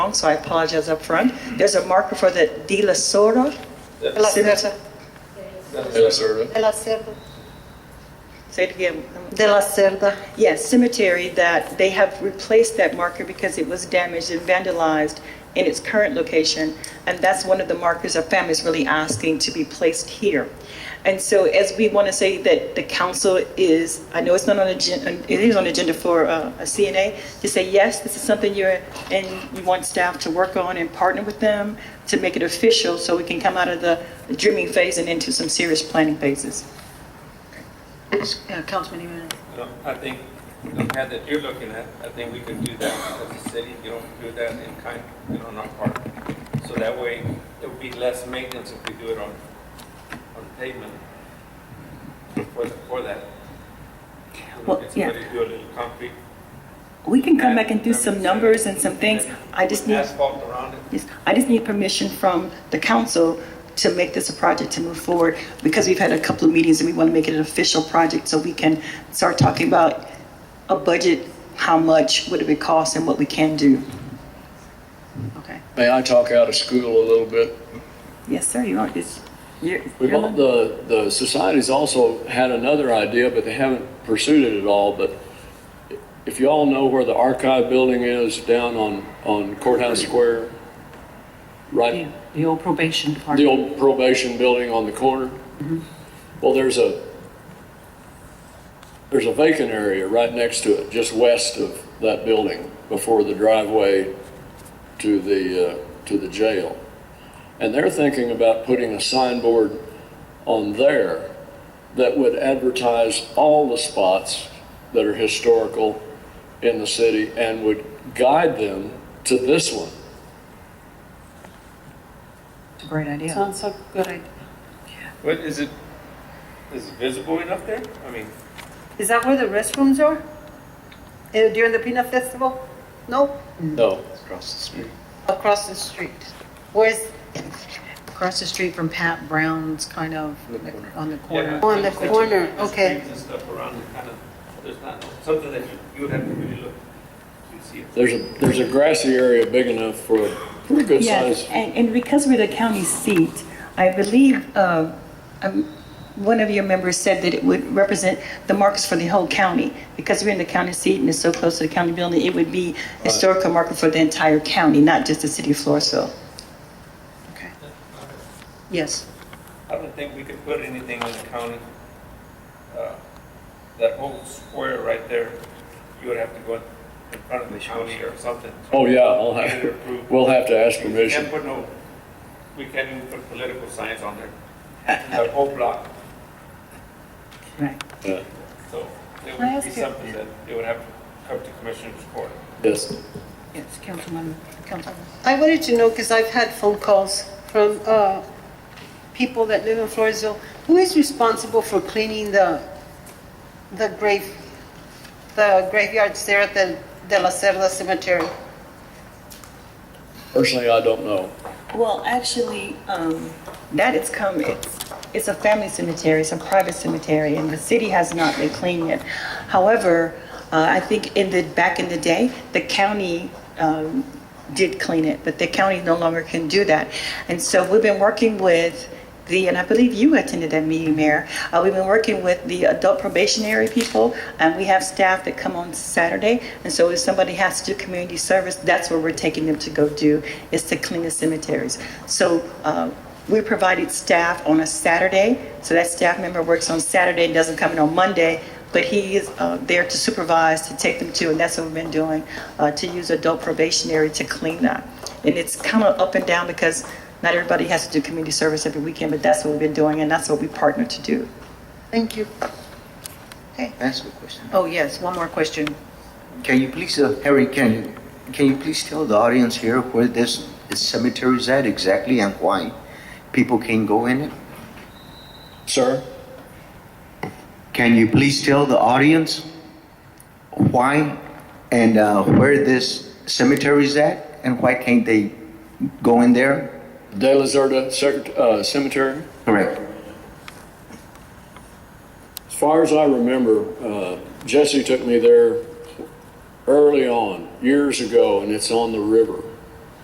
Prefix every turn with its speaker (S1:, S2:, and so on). S1: so I apologize up front. There's a marker for the De La Sora.
S2: De la Cerda.
S3: Minnesota.
S2: De la Cerda.
S1: Say it again.
S2: De la Cerda.
S1: Yes, cemetery that they have replaced that marker because it was damaged and vandalized in its current location. And that's one of the markers our family's really asking to be placed here. And so as we want to say that the council is, I know it's not on agenda, it is on agenda for uh, a CNA, to say, yes, this is something you're, and you want staff to work on and partner with them to make it official so we can come out of the dreaming phase and into some serious planning phases.
S2: Yeah, Councilman Emanuel.
S4: No, I think the pad that you're looking at, I think we could do that as a city, you don't do that in kind, you know, on our part. So that way, it would be less maintenance if we do it on, on pavement for, the- for that. You know,
S1: Well,
S4: Get
S1: yeah.
S4: somebody to do a little concrete.
S1: We can come back and do some numbers and some things. I just
S4: Put
S1: need,
S4: Asphalt around it.
S1: yes, I just need permission from the council to make this a project to move forward because we've had a couple of meetings and we want to make it an official project so we can start talking about a budget, how much would it would cost and what we can do. Okay.
S3: May I talk out of school a little bit?
S1: Yes, sir, you want this? you're-
S3: We've all, the, the society's also had another idea, but they haven't pursued it at all, but if you all know where the archive building is down on, on Courthouse Square, right,
S5: The the old probation
S3: the
S5: department.
S3: old probation building on the corner? Well, there's a, there's a vacant area right next to it, just west of that building, before the driveway to the, uh, to the jail. And they're thinking about putting a signboard on there that would advertise all the spots that are historical in the city and would guide them to this one.
S5: It's a great idea.
S6: Sounds so good.
S4: What, is it, is it visible enough there? I mean,
S2: Is that where the restrooms are? Eh, During the peanut festival? No?
S3: No.
S2: Across the street. Where's,
S5: Across the street from Pat Brown's, kind of, on the
S4: yeah.
S5: corner.
S2: On the corner, okay.
S4: Streets and stuff around it, kind of, there's not, something that you, you would have to really look to see it.
S3: There's a, there's a grassy area big enough for a pretty good
S1: Yes,
S3: size.
S1: and, and because we're the county seat, I believe, uh, um, one of your members said that it would represent the markers for the whole county. Because we're in the county seat and it's so close to the county building, it would be historical marker for the entire county, not just the city of Floresville.
S5: Yes.
S4: I don't think we could put anything in the county. Uh, That whole square right there, you would have to go in front of the county or something.
S3: Oh, yeah, I'll
S4: Get it
S3: have,
S4: approved.
S3: we'll have to ask
S4: We
S3: permission.
S4: can't put no, we can't even put political science on there. That whole block,
S5: Right.
S3: Yeah,
S4: so there
S5: I
S4: would
S5: ask
S4: be
S5: you-
S4: something that it would have to come to commissioners court.
S3: Yes,
S5: Yes, Councilman, Councilman.
S2: I wanted to know, because I've had phone calls from uh, people that live in Floresville, who is responsible for cleaning the, the grave, the graveyards there at the De La Cerda Cemetery?
S3: personally, I don't know.
S1: Well, actually, um, that it's come, it's, it's a family cemetery, it's a private cemetery, and the city has not been cleaning it. However, uh, I think in the, back in the day, the county, um, did clean it, but the county no longer can do that. And so we've been working with the, and I believe you attended that meeting, Mayor. Uh, we've been working with the adult probationary people, and we have staff that come on Saturday. And so if somebody has to do community service, that's where we're taking them to go do, is to clean the cemeteries. So, uh, we provided staff on a Saturday, so that staff member works on Saturday and doesn't come in on Monday, but he is uh, there to supervise, to take them to, and that's what we've been doing, uh, to use adult probationary to clean that. And it's kind of up and down because not everybody has to do community service every weekend, but that's what we've been doing, and that's what we partner to do.
S5: Thank you.
S7: That's the question.
S5: Oh, yes, one more question.
S7: Can you please, uh, Harry, can you, can you please tell the audience here where this cemetery is at exactly and why people can go in it?
S3: Sir?
S7: Can you please tell the audience why and uh, where this cemetery is at and why can't they go in there?
S3: De La Zerda Secret- uh, Cemetery?
S7: Correct.
S3: As far as I remember, uh, Jesse took me there early on, years ago, and it's on the river.